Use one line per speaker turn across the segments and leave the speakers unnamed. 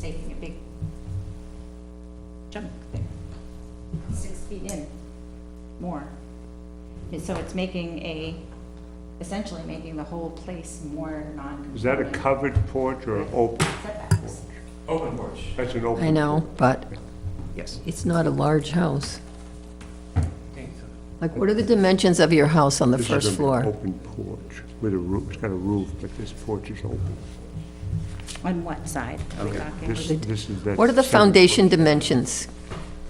taking a big chunk there, six feet in, more. And So it's making a, essentially making the whole place more non-conforming.
Is that a covered porch or an open?
Setbacks.
Open porch.
That's an open.
I know, but
Yes.
it's not a large house. Like, what are the dimensions of your house on the
This is
first
an
floor?
Open porch with a roof, it's got a roof, but this porch is open.
On what side are we talking?
This, this is that.
What are the
separate
foundation dimensions?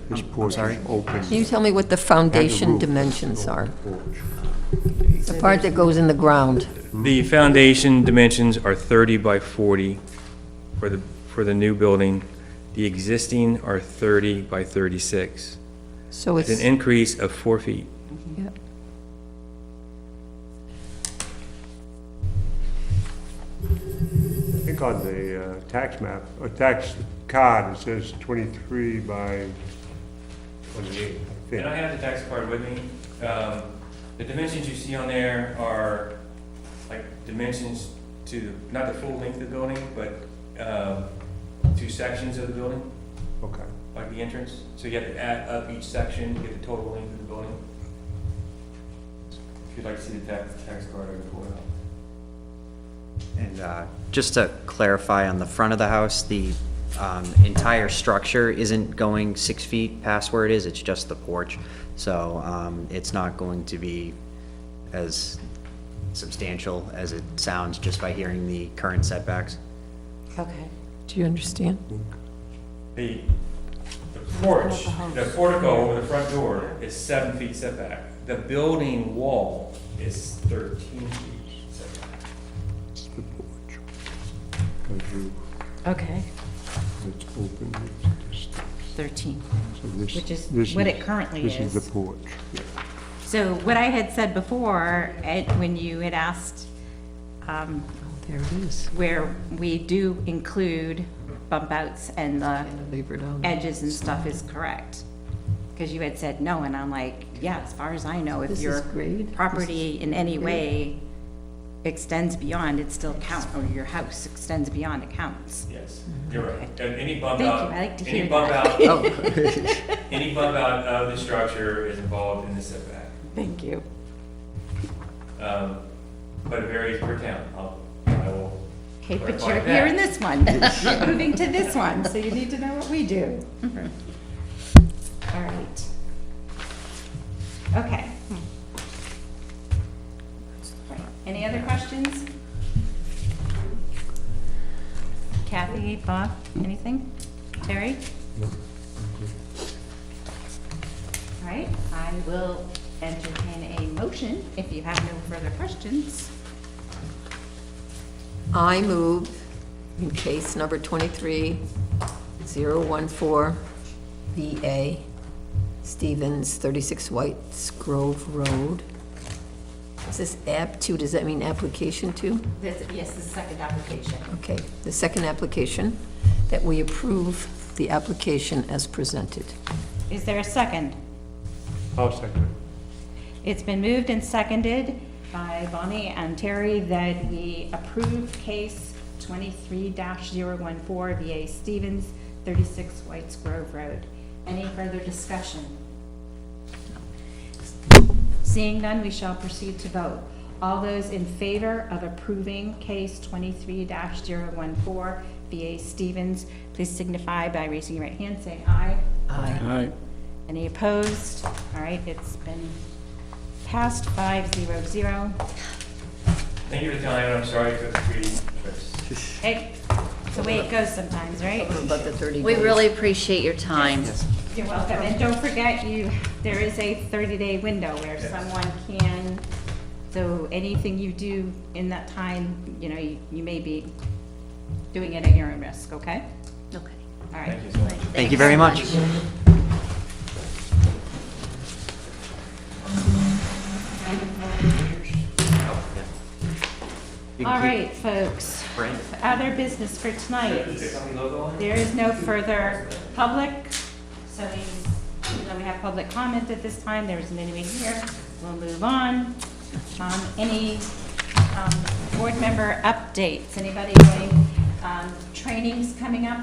porch. This porch
sorry?
is open.
Can you tell me what the
Had a
foundation
roof,
dimensions are?
open porch.
The part that goes in the ground?
The foundation dimensions are 30 by 40 for the, for the new building. The existing are 30 by 36.
So
It's an
it's,
increase of four feet.
yeah.
I think on the uh, tax map, or tax card, it says twenty-three by twenty-eight, I
And I
think.
have the tax card with me. Um, The dimensions you see on there are like dimensions to, not the full length of the building, but um, two sections of the building,
Okay.
like the entrance. So you have to add up each section to get the total length of the building. If you'd like to see the tax, tax card, I can pull it out.
And uh, just to clarify, on the front of the house, the um, entire structure isn't going six feet past where it is, it's just the porch. So um, it's not going to be as substantial as it sounds just by hearing the current setbacks.
Okay.
Do you understand?
The, the porch, the portico over the front door is seven feet setback. The building wall is thirteen feet setback.
It's the porch. Got a roof,
Okay.
it's open, it's just-
13,
so this-
which is
this
what it currently
This is
is.
the porch.
So what I had said before, Ed, when you had asked um,
Oh, There it is.
where we do include bump outs and the
Leave it on.
edges and stuff is correct. Because you had said no, and I'm like, yeah, as far as I know, if
This is
your
great.
property in any
great.
way extends beyond, it still counts, or your house extends beyond, it counts.
Yes, you're right. And any bump
Mm-hmm. Thank
out,
you, I like to
any
hear
bump
that.
out, any bump out of the structure is involved in the setback.
Thank you.
Um, But it varies per town. I'll, I will.
Okay, but
clarify
you're
that.
here in this one, moving to this one, so you need to know what we do. All right. Okay. Right. Any other questions? Kathy, Bob, anything? Terry? All right, I will entertain a motion if you have no further questions.
I move in case number 23014VA, Stevens, 36 Whites Grove Road. Is this app two, does that mean application two?
This, yes, the second application.
Okay, the second application, that we approve the application as presented.
Is there a second?
I'll second it.
It's been moved and seconded by Bonnie and Terry that we approve case twenty-three 14 VA Stevens, thirty-six Whites Grove Road. Any further discussion? Seeing none, we shall proceed to vote. All those in favor of approving case twenty-three 14 VA Stevens, please signify by raising your right hand, saying aye.
Aye.
Any opposed? All right, it's been passed five zero zero.
Thank you for the time. and I'm sorry for the three trips.
Hey, it's the way it goes sometimes, right?
About the 30
We
days.
really appreciate your time.
You're welcome, and don't forget, you, there is a thirty-day window where someone can, so anything you do in that time, you know, you you may be doing it at your own risk, okay?
Okay.
All right.
Thank you very much.
All right, folks. Other business for tonight. There is no further public, so we, even though we have public comment at this time, there isn't anyone here. We'll move on. Um, any, um, board member updates? Anybody doing, um, trainings coming up